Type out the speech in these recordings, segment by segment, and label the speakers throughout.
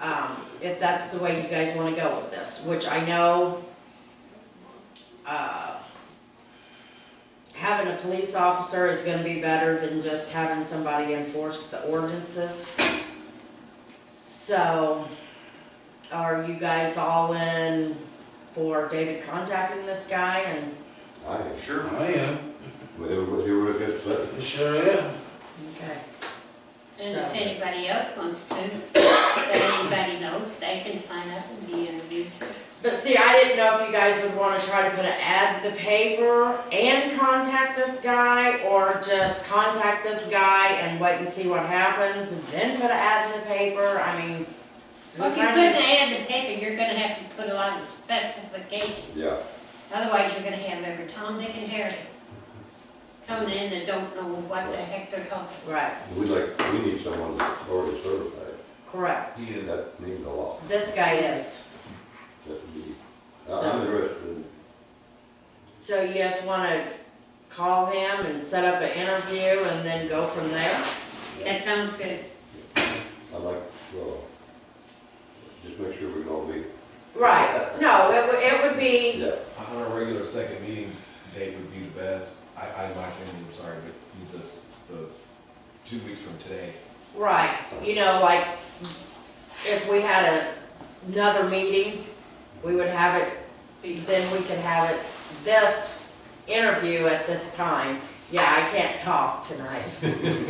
Speaker 1: um, if that's the way you guys wanna go with this, which I know, uh, having a police officer is gonna be better than just having somebody enforce the ordinances. So, are you guys all in for David contacting this guy and,
Speaker 2: I am.
Speaker 3: Sure.
Speaker 4: I am,
Speaker 2: Well, They were, they were a good flip.
Speaker 4: I Oh, sure am.
Speaker 1: okay,
Speaker 5: And if
Speaker 1: So-
Speaker 5: anybody else wants to, that anybody knows, they can sign up and be interviewed.
Speaker 1: But see, I didn't know if you guys would wanna try to put an ad in the paper and contact this guy, or just contact this guy and wait and see what happens, and then put an ad in the paper, I mean.
Speaker 5: Well, if you put an ad in the paper, you're gonna have to put a lot of specifications,
Speaker 2: Yeah,
Speaker 5: otherwise you're gonna have every Tom, Dick, and Harry coming in that don't know what the heck they're talking about.
Speaker 1: Right,
Speaker 2: we like, we need someone that's already certified.
Speaker 1: correct,
Speaker 3: He is.
Speaker 2: That means a lot.
Speaker 1: this guy is,
Speaker 2: That would be,
Speaker 1: So-
Speaker 2: I'm interested.
Speaker 1: so you guys wanna call him and set up an interview and then go from there?
Speaker 5: That sounds good.
Speaker 2: I like, well, just make sure we can all meet.
Speaker 1: Right, no, it would, it would be,
Speaker 2: Yeah,
Speaker 6: On a regular second meeting, date would be the best. I, I, my opinion, I'm sorry, but you just, the, two weeks from today.
Speaker 1: right, you know, like, if we had a, another meeting, we would have it then we can have it, this interview at this time. Yeah, I can't talk tonight.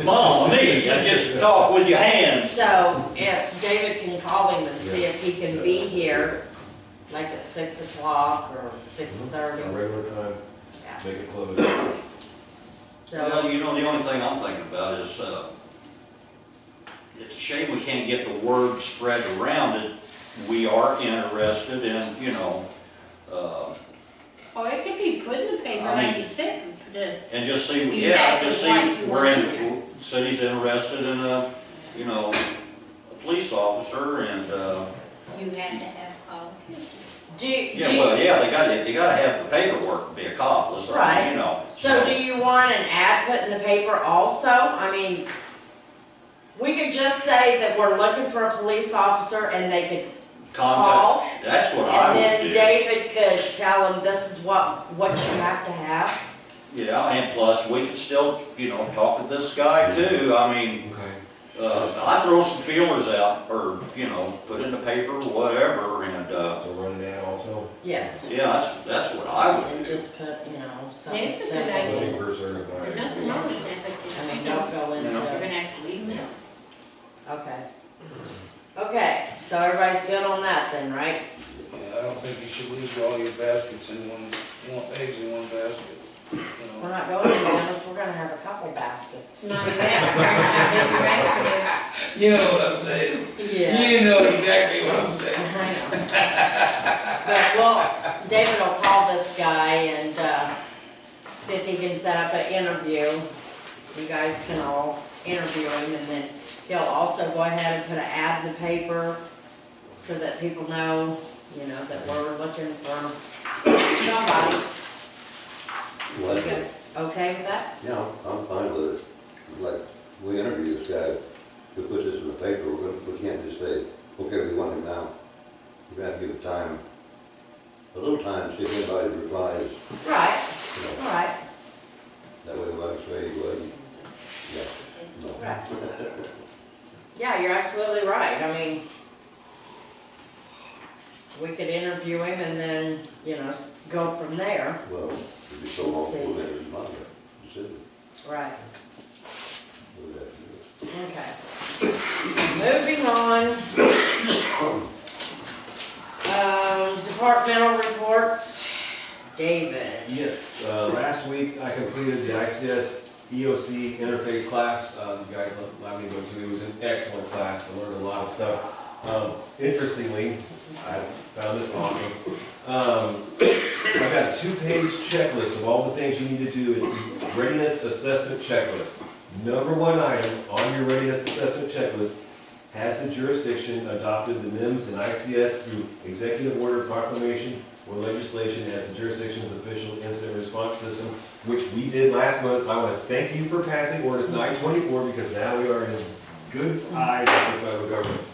Speaker 3: Mom, Oh, me, I just talk with your hands.
Speaker 1: So if David can call him and see if he can be here, like at six o'clock or six
Speaker 6: On
Speaker 1: thirty.
Speaker 6: a regular time,
Speaker 1: Yeah.
Speaker 6: make it close.
Speaker 1: So,
Speaker 3: Well, you know, the only thing I'm thinking about is, uh, it's a shame we can't get the word spread around it. We are interested in, you know, uh,
Speaker 5: Oh, it could be put in the paper
Speaker 3: I mean-
Speaker 5: like you said, and put a-
Speaker 3: and just see,
Speaker 5: Exactly
Speaker 3: yeah, just
Speaker 5: what
Speaker 3: see,
Speaker 5: you
Speaker 3: we're
Speaker 5: want
Speaker 3: in, city's interested in a, you know, a police officer and, uh,
Speaker 5: you had to have qualifications.
Speaker 1: do, you- do,
Speaker 3: yeah, well,
Speaker 1: you-
Speaker 3: yeah, they gotta, they gotta have the paperwork to be accomplished, I mean, you know.
Speaker 1: so do you want an ad put in the paper also? I mean, we could just say that we're looking for a police officer and they could call?
Speaker 3: Contact, that's what
Speaker 1: And
Speaker 3: I would do.
Speaker 1: then David could tell him this is what, what you have to have.
Speaker 3: Yeah, and plus, we can still, you know, talk to this guy too, I mean,
Speaker 6: Okay.
Speaker 3: uh, I throw some feelers out, or, you know, put in the paper, whatever, and, uh,
Speaker 6: So run it out also,
Speaker 1: Yes.
Speaker 3: yeah, that's, that's what I would
Speaker 1: And
Speaker 3: do.
Speaker 1: just put, you know, something
Speaker 5: It's a good
Speaker 1: simple.
Speaker 5: idea.
Speaker 6: looking for
Speaker 5: There's
Speaker 6: certified.
Speaker 5: nothing wrong with that,
Speaker 1: I
Speaker 5: but
Speaker 1: mean,
Speaker 5: you know,
Speaker 1: don't go
Speaker 5: you're
Speaker 1: into,
Speaker 5: gonna have to leave them out.
Speaker 1: okay. Okay, so everybody's good on that then, right?
Speaker 4: Yeah, I don't think you should lose all your baskets in one, one, eggs in one basket, you
Speaker 1: We're
Speaker 4: know.
Speaker 1: not going to Dennis, we're gonna have a couple baskets.
Speaker 5: No, you have to, you have to,
Speaker 4: You know what I'm saying?
Speaker 1: Yeah.
Speaker 4: know exactly what I'm
Speaker 1: I
Speaker 4: saying.
Speaker 1: know. But well, David will call this guy and, uh, see if he can set up an interview. You guys can all interview him and then he'll also go ahead and put an ad in the paper so that people know, you know, that we're looking for somebody. You
Speaker 2: like it.
Speaker 1: guys okay with that?
Speaker 2: Yeah, I'm- I'm fine with it. Like, we interview this guy, we put this in the paper, we we can't just say, okay, we want him now. We have to give it time, a little time, see if anybody replies,
Speaker 1: Right,
Speaker 2: you know,
Speaker 1: all right,
Speaker 2: that way we won't say he wasn't. Yeah, no.
Speaker 1: right. Yeah, you're absolutely right, I mean, we could interview him and then, you know, s- go from there.
Speaker 2: Well, it'd be so long, we'll never remind him.
Speaker 1: Right, okay. Moving on. Um, departmental reports, David.
Speaker 6: Yes, uh, last week I completed the ICS EOC interface class. Um, you guys let- let me go to, it It was an excellent class, I learned a lot of stuff. Um, interestingly, I found this awesome. Um, I got a two-page checklist of all the things you need to do, it's the readiness assessment checklist. Number one item on your readiness assessment checklist, has the jurisdiction adopted the NIMS and ICS through executive order proclamation or legislation as the jurisdiction's official incident response system, which we did last month, so I want to thank you for passing ordinance nine twenty-four, because now we are in good eyes with the federal government.